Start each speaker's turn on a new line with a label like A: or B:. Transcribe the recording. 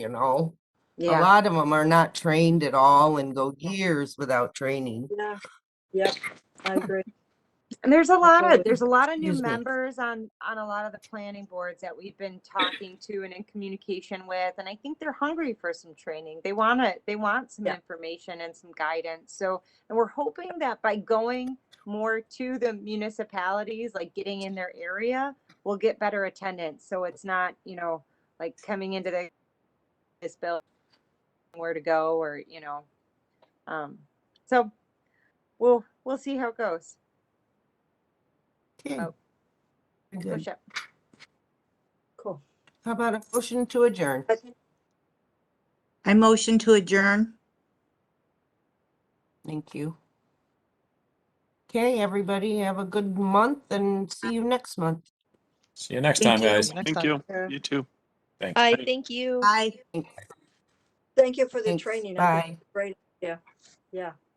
A: you know? A
B: Yeah.
A: lot of them are not trained at all and go years without training.
C: Yeah, yep, I agree.
B: And there's a lot of,
C: Absolutely.
B: there's a lot of new
A: Excuse me.
B: members on, on a lot of the planning boards that we've been talking to and in communication with. And I think they're hungry for some training. They want to, they want some
C: Yeah.
B: information and some guidance. So, and we're hoping that by going more to the municipalities, like getting in their area, we'll get better attendance. So it's not, you know, like coming into the, this bill, where to go or, you know. Um, so we'll, we'll see how it goes.
A: Okay.
B: Oh.
A: Very
B: Push
A: good.
B: up.
C: Cool.
A: How about a motion to adjourn?
D: I motion to adjourn.
A: Thank you. Okay, everybody, have a good month and see you next month.
E: See you next
D: Thank
E: time,
D: you.
E: guys.
F: Thank you.
C: Yeah.
F: You too.
E: Thanks.
G: I thank you.
D: Aye.
C: Thank you for the
A: Thanks,
C: training. I think
A: Bye.
C: it's Great, yeah, yeah.